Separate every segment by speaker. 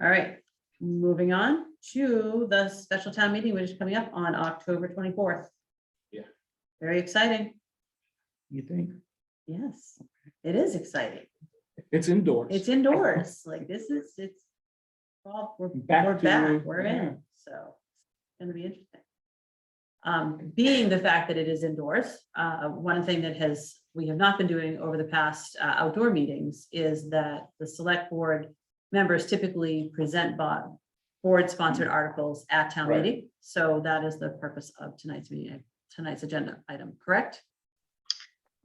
Speaker 1: All right, moving on to the special town meeting, which is coming up on October twenty-fourth.
Speaker 2: Yeah.
Speaker 1: Very exciting.
Speaker 2: You think?
Speaker 1: Yes, it is exciting.
Speaker 2: It's indoors.
Speaker 1: It's indoors, like this is, it's. Well, we're
Speaker 2: Back
Speaker 1: we're
Speaker 2: to-
Speaker 1: back, we're
Speaker 2: yeah.
Speaker 1: in, so it's gonna be interesting. Um, being the fact that it is indoors, uh, one thing that has, we have not been doing over the past uh, outdoor meetings is that the select board members typically present bo- board-sponsored articles at town
Speaker 2: Mm. Right.
Speaker 1: meeting. So that is the purpose of tonight's meeting, tonight's agenda item, correct?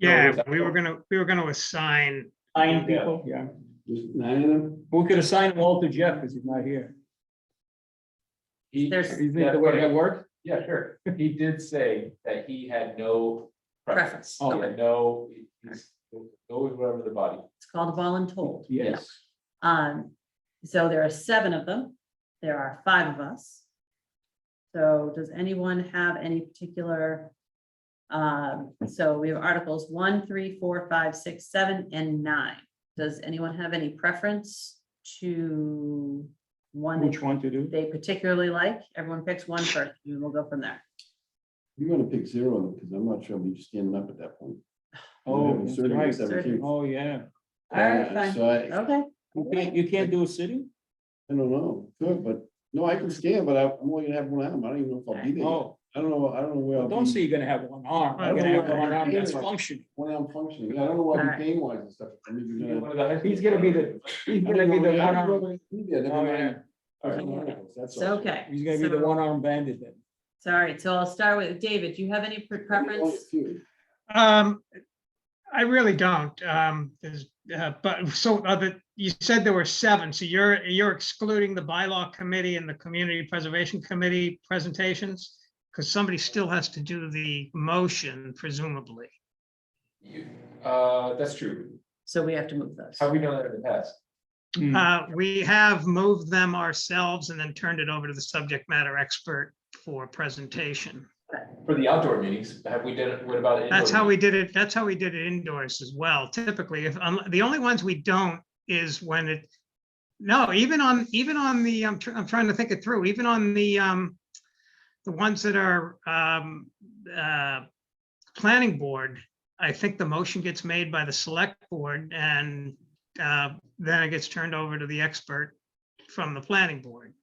Speaker 2: No,
Speaker 3: Yeah,
Speaker 2: it's-
Speaker 3: we were gonna, we were gonna assign,
Speaker 2: Nine people, yeah.
Speaker 4: Just nine of them?
Speaker 2: We could assign them all to Jeff because he's not here.
Speaker 4: He,
Speaker 1: There's-
Speaker 2: You think the way that worked?
Speaker 4: yeah, sure. He did say that he had no preference.
Speaker 1: Preference,
Speaker 4: He
Speaker 2: okay.
Speaker 4: had no, he's always whatever the body.
Speaker 1: It's called voluntold.
Speaker 2: Yes.
Speaker 1: Um, so there are seven of them. There are five of us. So does anyone have any particular? Um, so we have articles one, three, four, five, six, seven, and nine. Does anyone have any preference to one
Speaker 2: Which
Speaker 1: that
Speaker 2: one to do?
Speaker 1: they particularly like? Everyone picks one first and we'll go from there.
Speaker 5: You're gonna pick zero, because I'm not sure we'll be standing up at that point.
Speaker 2: Oh,
Speaker 5: Yeah,
Speaker 2: that's
Speaker 5: certainly
Speaker 2: right.
Speaker 5: seventeenth.
Speaker 2: Oh, yeah.
Speaker 1: All right,
Speaker 5: Uh,
Speaker 1: fine.
Speaker 5: So I,
Speaker 1: Okay,
Speaker 2: You can't, you can't do a city?
Speaker 5: I don't know, good, but, no, I can stand, but I- I'm only gonna have one arm, I don't even know if I'll be there.
Speaker 2: Oh,
Speaker 5: I don't know, I don't know where I'll
Speaker 2: don't say
Speaker 5: be,
Speaker 2: you're gonna have one arm.
Speaker 5: I
Speaker 2: You're gonna
Speaker 5: don't
Speaker 2: have one
Speaker 5: know.
Speaker 2: arm that's functioning.
Speaker 5: when I'm functioning, I don't know what
Speaker 1: All
Speaker 5: I'm
Speaker 1: right.
Speaker 5: paying wise and stuff. I mean, you're gonna-
Speaker 2: He's gonna be the, he's
Speaker 5: I
Speaker 2: gonna
Speaker 5: don't
Speaker 2: be
Speaker 5: know
Speaker 2: the
Speaker 5: where-
Speaker 2: one
Speaker 5: I don't know
Speaker 2: arm,
Speaker 5: where I'm gonna be, I don't
Speaker 2: Oh,
Speaker 5: know.
Speaker 2: yeah.
Speaker 5: All right, no articles, that's
Speaker 1: so,
Speaker 5: all.
Speaker 1: okay.
Speaker 2: he's gonna be the
Speaker 1: So-
Speaker 2: one arm bandit then.
Speaker 1: So, all right, so I'll start with David. Do you have any pre-
Speaker 5: Only
Speaker 1: preference?
Speaker 5: two.
Speaker 3: um, I really don't, um, there's, uh, but so other, you said there were seven, so you're, you're excluding the bylaw committee and the community preservation committee presentations? Because somebody still has to do the motion presumably.
Speaker 4: You- Uh, that's true.
Speaker 1: So we have to move those.
Speaker 4: Have we done that in the past?
Speaker 2: Hmm.
Speaker 3: Uh, we have moved them ourselves and then turned it over to the subject matter expert for presentation.
Speaker 4: For the outdoor meetings, have we done it? What about? indoor
Speaker 3: That's how
Speaker 4: meetings?
Speaker 3: we did it. That's how we did it indoors as well. Typically, if, um, the only ones we don't is when it, no, even on, even on the, I'm, tr- I'm trying to think it through, even on the, um, the ones that are, um, uh, planning board, I think the motion gets made by the select board and, uh, then it gets turned over to the expert from the planning board.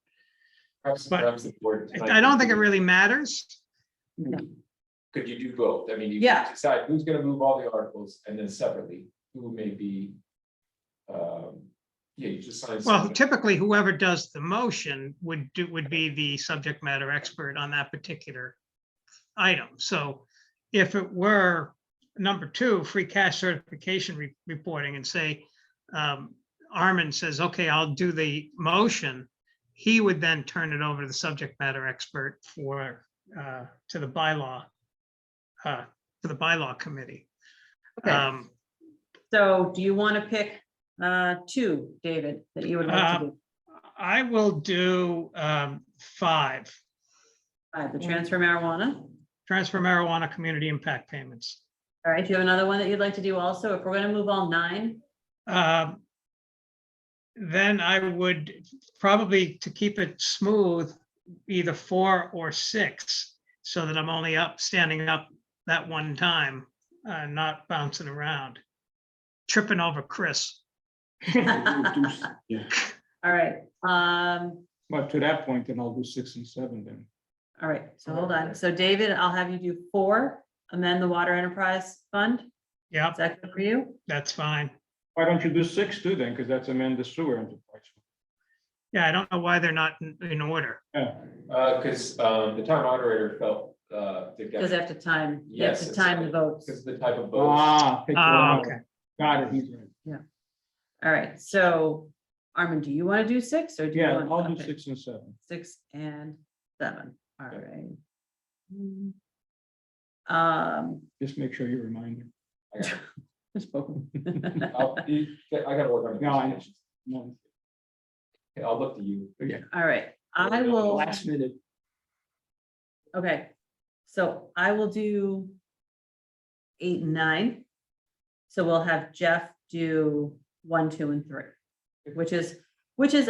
Speaker 4: Perhaps-
Speaker 3: but-
Speaker 4: perhaps the board
Speaker 3: I-
Speaker 4: tonight
Speaker 3: I don't
Speaker 4: could
Speaker 3: think it
Speaker 4: do-
Speaker 3: really matters.
Speaker 4: Could you do both? I mean, you
Speaker 1: Yeah.
Speaker 4: could decide who's gonna move all the articles and then separately, who may be. Um, yeah, you just sign.
Speaker 3: Well,
Speaker 4: something.
Speaker 3: typically whoever does the motion would do, would be the subject matter expert on that particular item. So if it were number two, free cash certification re- reporting and say, um, Armin says, okay, I'll do the motion. He would then turn it over to the subject matter expert for, uh, to the bylaw, uh, to the bylaw committee.
Speaker 1: Okay.
Speaker 3: Um,
Speaker 1: So do you want to pick uh two, David, that you would like to do?
Speaker 3: I will do um, five,
Speaker 1: All right, the transfer marijuana.
Speaker 3: transfer marijuana community impact payments.
Speaker 1: All right, do you have another one that you'd like to do also? If we're going to move all nine,
Speaker 3: Um, Then I would probably, to keep it smooth, either four or six, so that I'm only up, standing up that one time, uh, not bouncing around, tripping over Chris.
Speaker 5: Yeah.
Speaker 1: all right, um,
Speaker 2: But to that point, then I'll do six and seven then.
Speaker 1: all right, so hold on. So David, I'll have you do four, amend the water enterprise fund. Is
Speaker 3: Yep,
Speaker 1: that good for you?
Speaker 3: that's fine.
Speaker 2: Why don't you do six too then? Because that's amend the sewer enterprise.
Speaker 3: Yeah, I don't know why they're not in- in order.
Speaker 4: Uh, cause, um, the town moderator felt, uh, they've got.
Speaker 1: Because after time, you have
Speaker 4: Yes,
Speaker 1: to
Speaker 4: it's-
Speaker 1: time the votes.
Speaker 4: Cause the type of boat.
Speaker 2: Ah. pick one
Speaker 3: Ah,
Speaker 2: out.
Speaker 3: okay.
Speaker 2: Got it, he's right.
Speaker 1: All right, so Armin, do you want to do six or do you
Speaker 2: Yeah,
Speaker 1: want?
Speaker 2: I'll do
Speaker 1: okay,
Speaker 2: six and seven.
Speaker 1: Six and seven, all right. Mm. Um,
Speaker 2: Just make sure you remind him.
Speaker 4: I got it.
Speaker 1: All
Speaker 4: I'll- you- I gotta work on. the
Speaker 2: No, I know.
Speaker 4: presentations.
Speaker 2: No,
Speaker 4: Okay, I'll look to you.
Speaker 2: Yeah.
Speaker 1: right, I
Speaker 4: Okay.
Speaker 1: will,
Speaker 2: Last minute.
Speaker 1: okay, so I will do eight and nine. So we'll have Jeff do one, two, and three, which is, which is